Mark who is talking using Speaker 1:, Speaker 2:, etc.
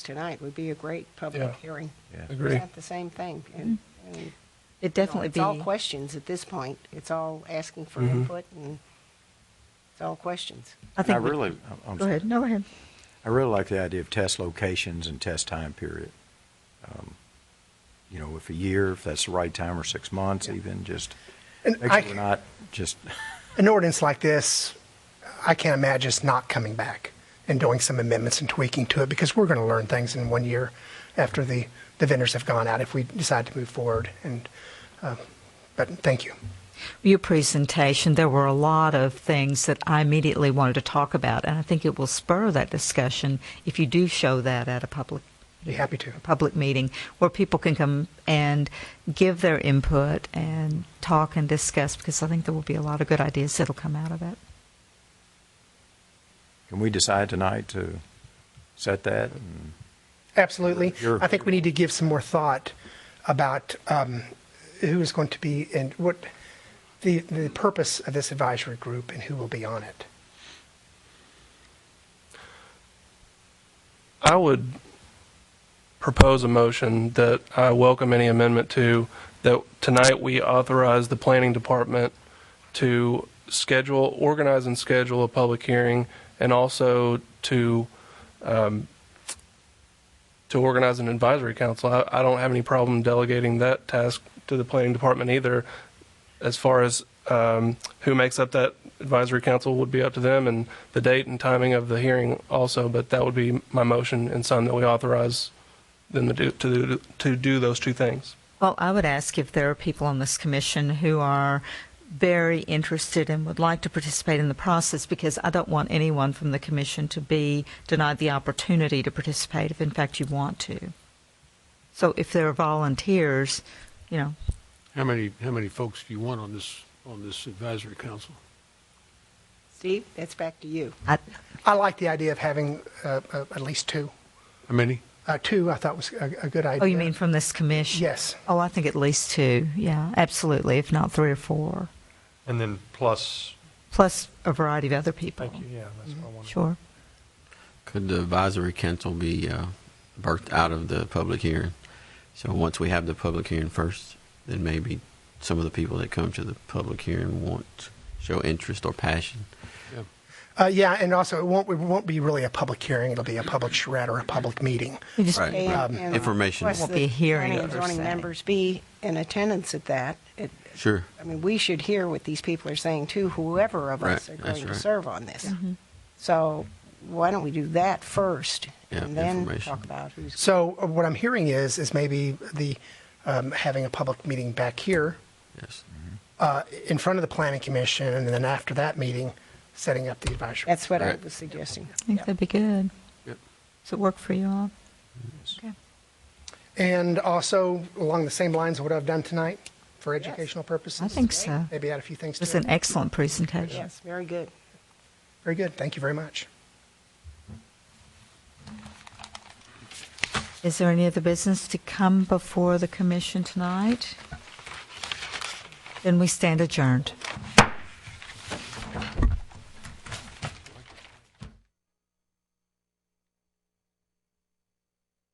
Speaker 1: tonight would be a great
Speaker 2: Yeah.
Speaker 1: public hearing.
Speaker 3: Yeah.
Speaker 2: Agree.
Speaker 1: It's not the same thing. And- and, you know,
Speaker 4: It'd Mm-hmm. definitely
Speaker 1: It's all
Speaker 4: be,
Speaker 1: questions at this point. It's all asking for
Speaker 2: Mm-hmm.
Speaker 1: input and it's all questions.
Speaker 4: I
Speaker 3: I
Speaker 4: think, we-
Speaker 3: really, I'm- I'm
Speaker 4: go
Speaker 3: sorry.
Speaker 4: ahead, no, go ahead.
Speaker 3: I really like the idea of test locations and test time period. Um, You know, if a year, if that's the right time, or six months even, just
Speaker 2: And
Speaker 3: make
Speaker 2: I-
Speaker 3: sure we're not just,
Speaker 2: An ordinance like this, I can't imagine it's not coming back and doing some amendments and tweaking to it because we're going to learn things in one year after the, the vendors have gone out if we decide to move forward. And, uh, but thank you.
Speaker 4: Your presentation, there were a lot of things that I immediately wanted to talk about, and I think it will spur that discussion if you do show that at a public
Speaker 2: Be happy to.
Speaker 4: a public meeting where people can come and give their input and talk and discuss because I think there will be a lot of good ideas that'll come out of it.
Speaker 3: can we decide tonight to set that? And
Speaker 2: Absolutely.
Speaker 3: You're-
Speaker 2: I think we need to give some more thought about um, who is going to be and what the, the purpose of this advisory group and who will be on it.
Speaker 5: I would propose a motion that I welcome any amendment to, that tonight we authorize the planning department to schedule, organize and schedule a public hearing, and also to, um, to organize an advisory council. I, I don't have any problem delegating that task to the planning department either. As far as, um, who makes up that advisory council would be up to them and the date and timing of the hearing also, but that would be my motion and sign that we authorize them to do, to, do- to do those two things.
Speaker 4: Well, I would ask if there are people on this commission who are very interested and would like to participate in the process because I don't want anyone from the commission to be denied the opportunity to participate if in fact you want to. So if there are volunteers, you know,
Speaker 6: How many, how many folks do you want on this, on this advisory council?
Speaker 1: Steve, that's back to you.
Speaker 4: I,
Speaker 2: I like the idea of having uh, uh, at least two.
Speaker 6: How many?
Speaker 2: Uh, two, I thought was a, a good idea.
Speaker 4: oh, you mean from this commission?
Speaker 2: Yes.
Speaker 4: Oh, I think at least two. Yeah, absolutely, if not three or four,
Speaker 7: And then plus,
Speaker 4: plus a variety of other people.
Speaker 7: thank you, yeah, that's what I wanted.
Speaker 4: Sure.
Speaker 8: Could the advisory council be uh, birthed out of the public hearing? So once we have the public hearing first, then maybe some of the people that come to the public hearing want, show interest or passion.
Speaker 6: Yeah.
Speaker 2: Uh, yeah, and also it won't, it won't be really a public hearing. It'll be a public charrette or a public meeting.
Speaker 4: You just-
Speaker 8: Right.
Speaker 1: And- and
Speaker 8: Information.
Speaker 1: request
Speaker 4: Won't
Speaker 1: that
Speaker 4: be a hearing
Speaker 1: planning and
Speaker 4: per
Speaker 1: zoning
Speaker 4: se.
Speaker 1: members be in attendance at that. It-
Speaker 8: Sure.
Speaker 1: I mean, we should hear what these people are saying too, whoever of us
Speaker 8: Right,
Speaker 1: are
Speaker 8: that's
Speaker 1: going to
Speaker 8: right.
Speaker 1: serve on this.
Speaker 4: Mm-hmm.
Speaker 1: So why don't we do that first?
Speaker 8: Yeah,
Speaker 1: And then
Speaker 8: information.
Speaker 1: talk about who's,
Speaker 2: So uh, what I'm hearing is is maybe the um, having a public meeting back here
Speaker 8: Yes.
Speaker 2: uh, in front of the planning commission, and then after that meeting, setting up the advisory.
Speaker 1: that's what I
Speaker 8: Right.
Speaker 1: was suggesting.
Speaker 4: I think that'd be good.
Speaker 6: Yep.
Speaker 4: Does it work for you all? Okay.
Speaker 2: and also along the same lines of what I've done tonight for educational purposes.
Speaker 4: I think so.
Speaker 2: Maybe add a few things
Speaker 4: It was
Speaker 2: to it.
Speaker 4: an excellent presentation.
Speaker 1: Yes, very good.
Speaker 2: Very good. Thank you very much.
Speaker 4: Is there any other business to come before the commission tonight? Then we stand adjourned.